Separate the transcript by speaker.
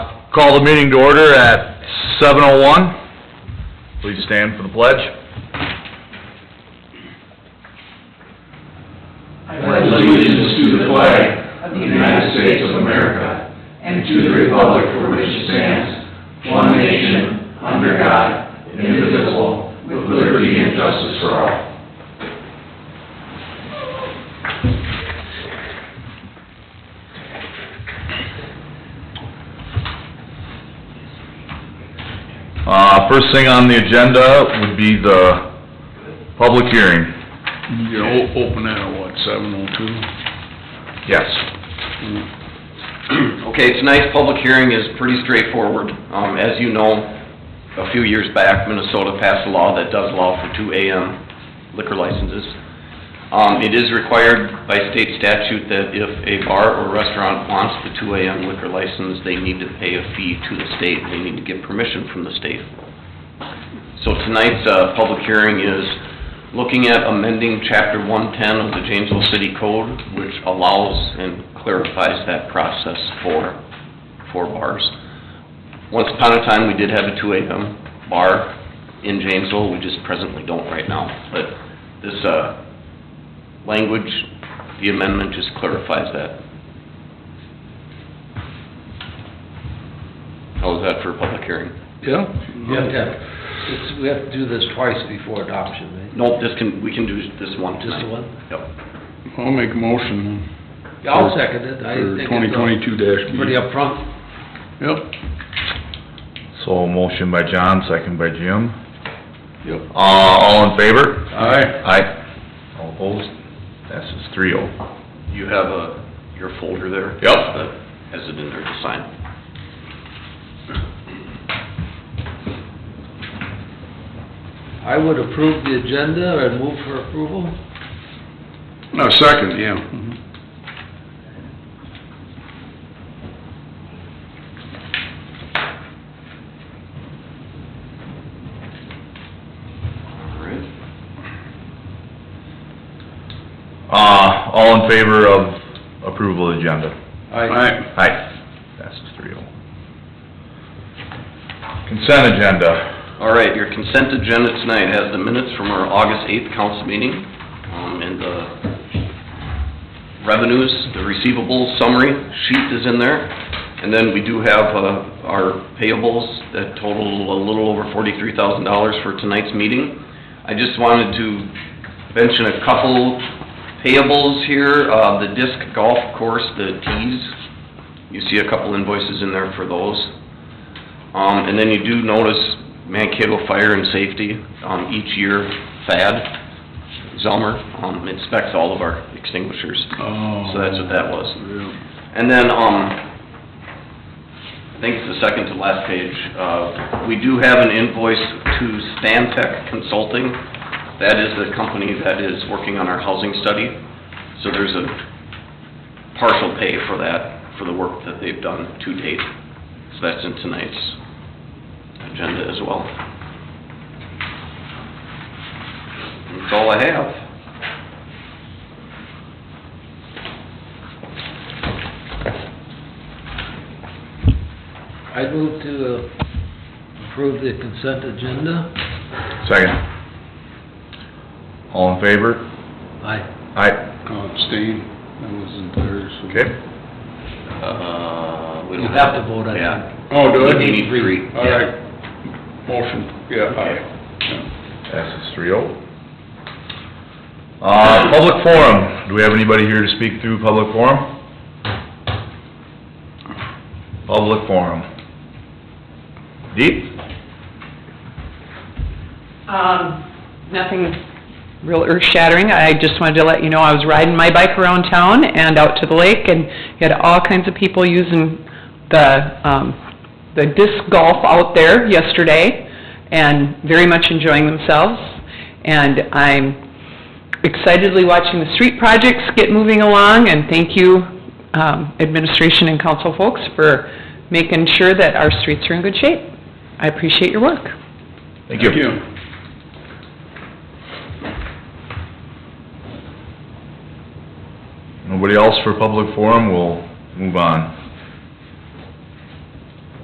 Speaker 1: Call the meeting to order at seven oh one. Please stand for the pledge.
Speaker 2: I pledge allegiance to the flag of the United States of America and to the republic for which it stands, one nation, under God, indivisible, with liberty and justice for all.
Speaker 1: Uh, first thing on the agenda would be the public hearing.
Speaker 3: You o- open that at what, seven oh two?
Speaker 1: Yes.
Speaker 4: Okay, tonight's public hearing is pretty straightforward. Um, as you know, a few years back, Minnesota passed a law that does allow for two AM liquor licenses. Um, it is required by state statute that if a bar or restaurant wants the two AM liquor license, they need to pay a fee to the state. They need to get permission from the state. So tonight's, uh, public hearing is looking at amending chapter one-ten of the Janesville City Code, which allows and clarifies that process for, for bars. Once upon a time, we did have a two AM bar in Janesville, we just presently don't right now, but this, uh, language, the amendment just clarifies that. How was that for a public hearing?
Speaker 3: Yeah?
Speaker 5: Yeah, yeah. It's, we have to do this twice before adoption, right?
Speaker 4: Nope, this can, we can do this one
Speaker 5: Just
Speaker 4: tonight.
Speaker 5: the one?
Speaker 4: Yep.
Speaker 3: I'll make a motion
Speaker 5: Yeah, I'll second it. I
Speaker 3: for
Speaker 5: think
Speaker 3: twenty
Speaker 5: it's
Speaker 3: twenty-two dash
Speaker 5: uh,
Speaker 3: B.
Speaker 5: pretty upfront.
Speaker 3: Yep,
Speaker 1: So motion by John, second by Jim.
Speaker 3: yep.
Speaker 1: Uh, all in favor?
Speaker 3: Aye.
Speaker 1: Aye. All opposed? Passes three oh.
Speaker 4: You have a, your folder there?
Speaker 1: Yep.
Speaker 4: Uh, Has it in there to sign?
Speaker 5: I would approve the agenda and move for approval.
Speaker 3: No, second, yeah. Mhm.
Speaker 4: All right.
Speaker 1: Uh, all in favor of approval of agenda?
Speaker 3: Aye.
Speaker 1: Aye. Passes three oh. Consent agenda.
Speaker 4: All right, your consent agenda tonight has the minutes from our August 8th council meeting, um, and the revenues, the receivables summary sheet is in there. And then we do have, uh, our payables that total a little over $43,000 for tonight's meeting. I just wanted to mention a couple payables here, uh, the disc golf course, the tees. You see a couple invoices in there for those. Um, and then you do notice Mankato Fire and Safety, um, each year, FAD, Zelmer, um, inspects all of our extinguishers.
Speaker 3: Oh.
Speaker 4: So that's what that was.
Speaker 3: Yeah.
Speaker 4: And then, um, I think it's the second to last page, uh, we do have an invoice to Stantec Consulting. That is the company that is working on our housing study. So there's a partial pay for that, for the work that they've done to date. So that's in tonight's agenda as well. That's all I have.
Speaker 5: I move to uh, approve the consent agenda.
Speaker 1: Second. All in favor?
Speaker 5: Aye.
Speaker 1: Aye.
Speaker 3: I'll abstain, I wasn't there, so.
Speaker 1: Okay.
Speaker 4: Uh, we
Speaker 5: You
Speaker 4: don't
Speaker 5: have to vote, I think.
Speaker 4: Yeah.
Speaker 3: Oh, do I?
Speaker 4: We need three.
Speaker 3: All right. Motion, yeah,
Speaker 4: Okay.
Speaker 3: aye. Yeah.
Speaker 1: Passes three oh. Uh, public forum. Do we have anybody here to speak through public forum? Public forum. Deep?
Speaker 6: Um, nothing real earth-shattering. I just wanted to let you know, I was riding my bike around town and out to the lake, and you had all kinds of people using the, um, the disc golf out there yesterday, and very much enjoying themselves. And I'm excitedly watching the street projects get moving along, and thank you, um, administration and council folks, for making sure that our streets are in good shape. I appreciate your work.
Speaker 1: Thank you. Nobody else for public forum? We'll move on.